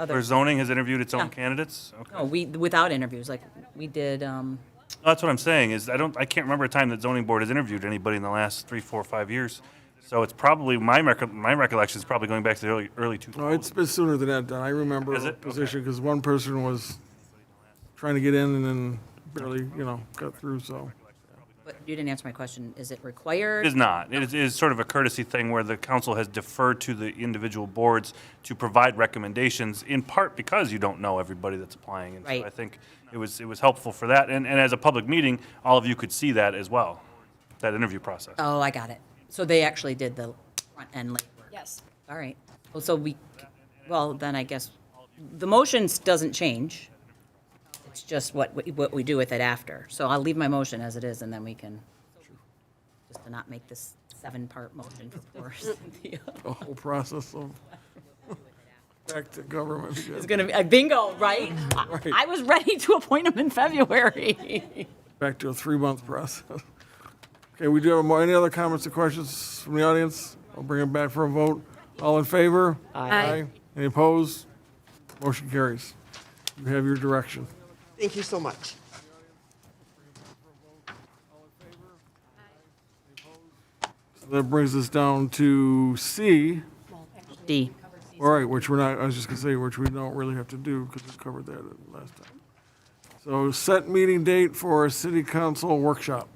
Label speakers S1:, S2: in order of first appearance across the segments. S1: other,
S2: Where zoning has interviewed its
S1: Yeah.
S2: own candidates? Okay.
S1: no, we, without interviews, like, we did, um,
S2: That's what I'm saying, is I don't, I can't remember a time that zoning board has interviewed anybody in the last three, four, five years. So it's probably, my recol, my recollection is probably going back to the early, early two
S3: No, it's
S2: thousands.
S3: been sooner than that, Don. I remember
S2: Is
S3: a
S2: it? Okay.
S3: position, because one person was trying to get in and then barely, you know, got through, so.
S1: but you didn't answer my question. Is it required?
S2: It is not. It is, it is sort of a courtesy thing where the council has deferred to the individual boards to provide recommendations, in part because you don't know everybody that's applying. And so
S1: Right.
S2: I think it was, it was helpful for that, and, and as a public meeting, all of you could see that as well, that interview process.
S1: Oh, I got it. So they actually did the front end labor.
S4: Yes.
S1: All right. Well, so we, well, then I guess, the motions doesn't change. It's just what, we- what we do with it after. So I'll leave my motion as it is, and then we can, just to not make this seven-part motion for Cynthia.
S3: The whole process of back to government.
S1: It's
S3: again.
S1: gonna be, uh, bingo, right? I-
S3: Right.
S1: I was ready to appoint him in February.
S3: Back to a three-month process. Okay, we do have more, any other comments or questions from the audience? I'll bring it back for a vote. All in favor?
S4: Aye.
S3: Any opposed? Motion carries. You have your direction.
S5: Thank you so much.
S3: So That brings us down to C,
S1: D.
S3: All right, which we're not, I was just gonna say, which we don't really have to do, because we covered that last time. So set meeting date for a city council workshop.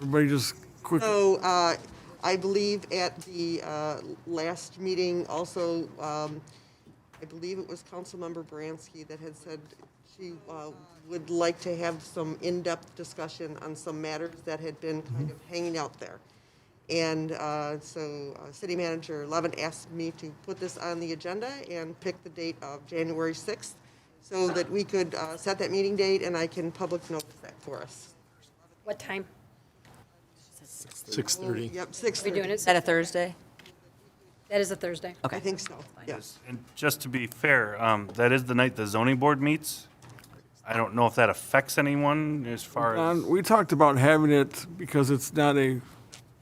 S3: Everybody just quick,
S5: So uh, I believe at the uh, last meeting also, um, I believe it was Councilmember Bransky that had said she uh, would like to have some in-depth discussion on some matters that had been kind of hanging out there. And uh, so uh, City Manager Levin asked me to put this on the agenda and pick the date of January 6th so that we could uh, set that meeting date and I can public notice that for us.
S4: What time?
S6: 6:30.
S5: Yep, 6th.
S4: We're doing it.
S1: that a Thursday?
S4: That is a Thursday.
S5: I think so, yes.
S2: And just to be fair, um, that is the night the zoning board meets. I don't know if that affects anyone as far as,
S3: Don, we talked about having it, because it's not a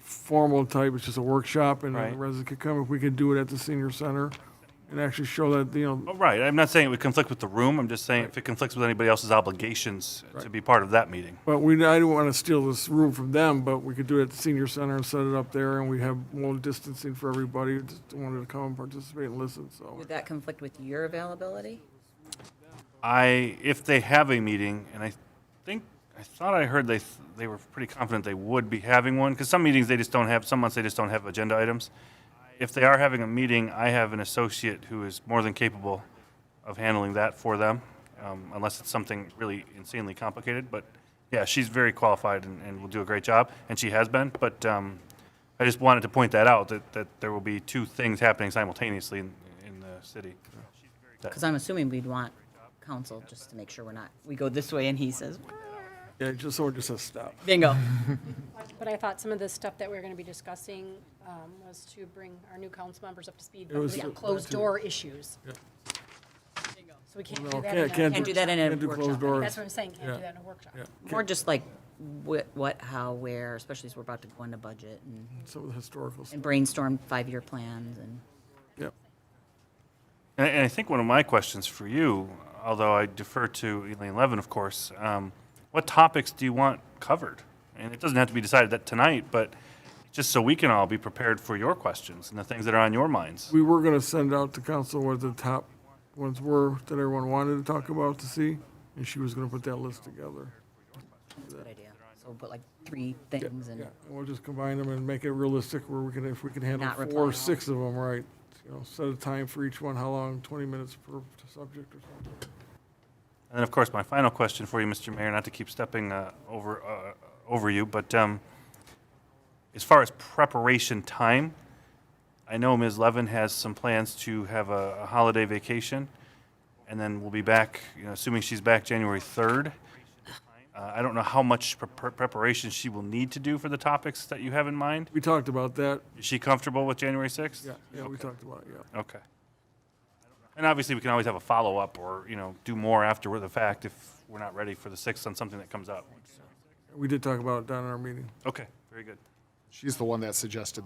S3: formal type, it's just a workshop, and the
S2: Right.
S3: residents could come, if we could do it at the senior center, and actually show that, you know,
S2: Oh, right, I'm not saying it would conflict with the room, I'm just saying if it conflicts with anybody else's obligations to be part of that meeting.
S3: But we, I don't want to steal this room from them, but we could do it at the senior center and set it up there, and we have more distancing for everybody who wanted to come and participate and listen, so.
S1: Would that conflict with your availability?
S2: I, if they have a meeting, and I think, I thought I heard they, they were pretty confident they would be having one, because some meetings they just don't have, some months they just don't have agenda items. If they are having a meeting, I have an associate who is more than capable of handling that for them, um, unless it's something really insanely complicated, but yeah, she's very qualified and, and will do a great job, and she has been, but, um, I just wanted to point that out, that, that there will be two things happening simultaneously in, in the city.
S1: Because I'm assuming we'd want counsel just to make sure we're not, we go this way and he says,
S3: Yeah, just, someone just says stop.
S1: bingo.
S4: But I thought some of the stuff that we were going to be discussing um, was to bring our new council members up to speed
S3: was
S4: with
S3: to-
S4: closed door issues. So we can't do
S3: No,
S4: that in a.
S3: can't, can't.
S1: Can't do that in a
S3: can't do closed
S1: workshop.
S3: doors.
S4: That's what I'm saying, can't
S3: Yeah.
S4: do that in a workshop.
S3: Yeah,
S1: More just like what, what, how, where, especially as we're about to go into budget and-
S3: some of the historical stuff,
S1: and brainstorm five-year plans and.
S3: yep.
S2: And, and I think one of my questions for you, although I defer to Elaine Levin, of course, um, what topics do you want covered? And it doesn't have to be decided that tonight, but just so we can all be prepared for your questions and the things that are on your minds.
S3: We were gonna send out to council what the top ones were that everyone wanted to talk about to see, and she was gonna put that list together.
S1: That's a good idea. So we'll put like three things and
S3: Yeah, and we'll just combine them and make it realistic where we can, if we can handle
S1: Not reply
S3: four,
S1: all.
S3: or six of them, right? You know, set a time for each one, how long, twenty minutes per subject or something.
S2: And then, of course, my final question for you, Mr. Mayor, not to keep stepping uh, over, uh, over you, but um, as far as preparation time, I know Ms. Levin has some plans to have a, a holiday vacation, and then we'll be back, you know, assuming she's back January 3rd. Uh, I don't know how much pre- pre- preparation she will need to do for the topics that you have in mind.
S3: We talked about that.
S2: Is she comfortable with January 6th?
S3: Yeah, yeah, we talked about it, yeah.
S2: Okay. And obviously, we can always have a follow-up or, you know, do more after the fact if we're not ready for the 6th on something that comes up.
S3: We did talk about it down in our meeting.
S2: Okay, very good.
S6: She's the one that suggested that.